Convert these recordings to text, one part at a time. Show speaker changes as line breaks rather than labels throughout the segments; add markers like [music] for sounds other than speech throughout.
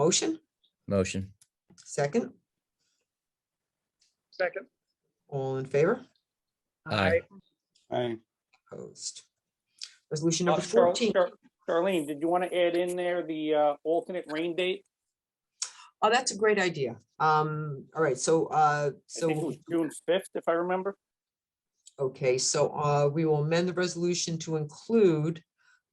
Motion,
Motion.
second,
Second.
all in favor?
Aye.
Aye.
Opposed. Resolution
Uh,
number
Char-
fourteen.
Char- Charlene, did you want to add in there the uh, alternate rain date?
Oh, that's a great idea. Um, all right, so, uh,
I think it was
so,
June fifth, if I remember.
okay, so, uh, we will amend the resolution to include.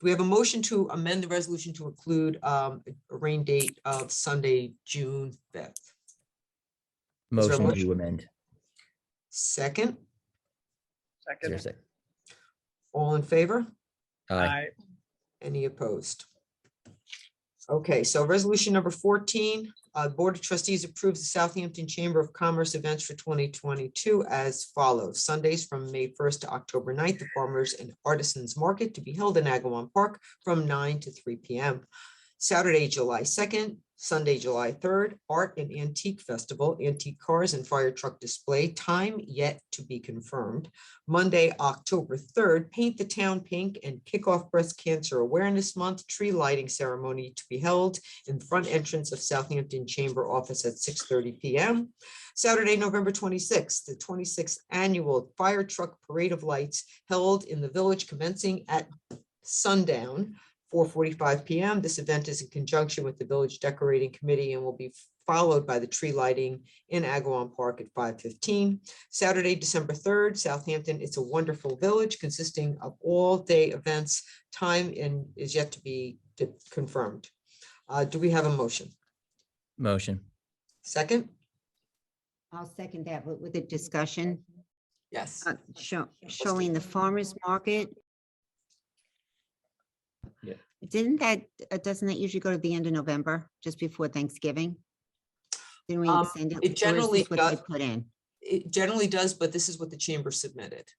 We have a motion to amend the resolution to include, um, a rain date of Sunday, June fifth. there a
Motion
motion?
to amend.
Second,
Is there a sec-
all in favor?
Aye.
Any opposed? Okay, so resolution number fourteen, uh, Board of Trustees approves the Southampton Chamber of Commerce events for twenty twenty-two as follows. Sundays from May first to October 9th, the Farmers and Artisans Market to be held in Agawam Park from nine to three P M. Saturday, July second, Sunday, July third, Art and Antique Festival, Antique Cars and Fire Truck Display, time yet to be confirmed. Monday, October 3rd, Paint the Town Pink and kick off Breast Cancer Awareness Month tree lighting ceremony to be held in the front entrance of Southampton Chamber Office at 6:30 PM. Saturday, November 26th, the 26th Annual Fire Truck Parade of Lights held in the village commencing at sundown, 4:45 PM. This event is in conjunction with the Village Decorating Committee and will be followed by the tree lighting in Agawam Park at 5:15. Saturday, December third, Southampton, It's a Wonderful Village consisting of all-day events. Time and is yet to be de- confirmed. Uh, do we have a motion?
Motion.
Second?
I'll second that, but with a discussion,
Yes.
uh, show- showing the farmer's market.
Yeah.
Didn't that, uh, doesn't that usually go to the end of November, just before Thanksgiving? Didn't we
Um,
extend it?
it
or is
generally
this What they
does-
put in,
It generally does, but this is what the chamber submitted.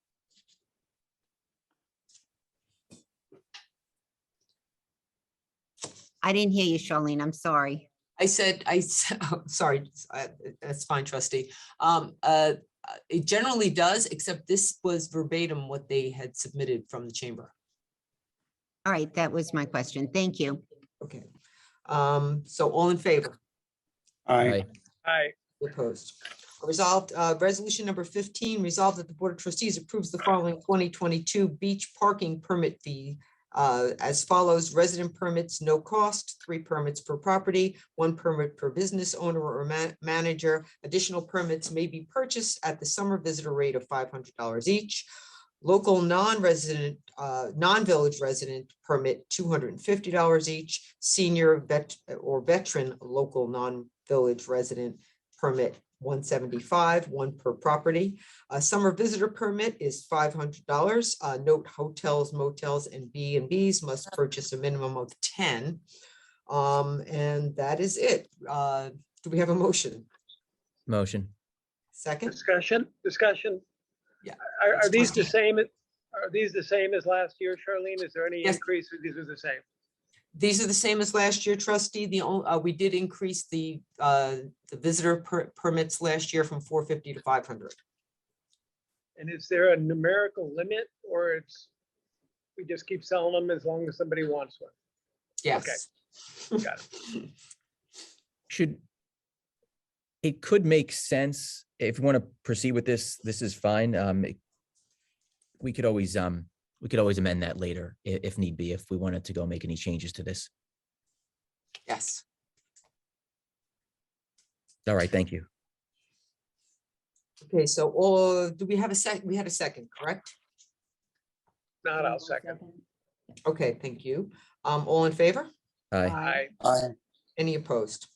I didn't hear you, Charlene, I'm sorry.
I said, I, s- [laughs] oh, sorry, I- that's fine, trustee. Um, uh, uh, it generally does, except this was verbatim what they had submitted from the chamber.
All right, that was my question, thank you.
Okay. Um, so all in favor?
Aye.
Aye.
Aye.
Opposed. Resolved, uh, resolution number fifteen, resolved that the Board of Trustees approves the following twenty twenty-two beach parking permit fee. uh, as follows, resident permits, no cost, three permits per property, one permit per business owner or ma- manager. Additional permits may be purchased at the summer visitor rate of five hundred dollars each. Local non-resident, uh, non-village resident permit, two hundred and fifty dollars each. Senior vet or veteran, local non-village resident, permit one seventy-five, one per property. A summer visitor permit is five hundred dollars. Uh, note hotels, motels, and B and Bs must purchase a minimum of ten. Um, and that is it. Uh, do we have a motion?
Motion.
Second?
Discussion, discussion.
Yeah,
Are,
that's
are these
fine.
the same, are these the same as last year, Charlene? Is there any
Yes.
increase or these are the same?
These are the same as last year, trustee. The only, uh, we did increase the, uh, the visitor per- permits last year from four fifty to five hundred.
And is there a numerical limit or it's, we just keep selling them as long as somebody wants one?
Yes.
got
Should. It could make sense if you want to proceed with this, this is fine. Um. it- We could always, um, we could always amend that later i- if need be, if we wanted to go make any changes to this.
Yes.
All right, thank you.
Okay, so, all do we have a sec, we had a second, correct?
Not, I'll second.
Okay, thank you. Um, all in favor?
Aye.
Aye.
Aye.
Any opposed?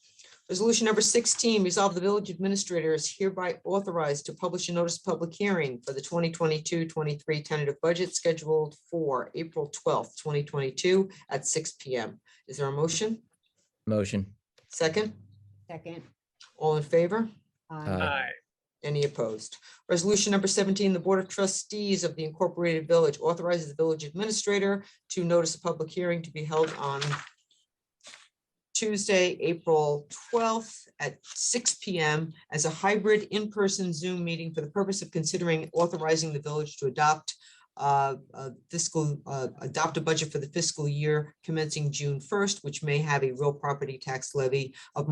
Resolution number sixteen, resolve the village administrator is hereby authorized to publish a notice of public hearing for the 2022-23 tentative budget scheduled for April twelfth, twenty twenty-two at six P M. Is there a motion?
Motion.
Second,
Second.
all in favor?
Aye.
Aye.
Any opposed? Resolution number seventeen, the Board of Trustees of the Incorporated Village authorizes the village administrator to notice a public hearing to be held on Tuesday, April twelfth at six P M as a hybrid in-person Zoom meeting for the purpose of considering authorizing the village to adopt uh, uh, fiscal, uh, adopt a budget for the fiscal year commencing June first, which may have a real property tax levy of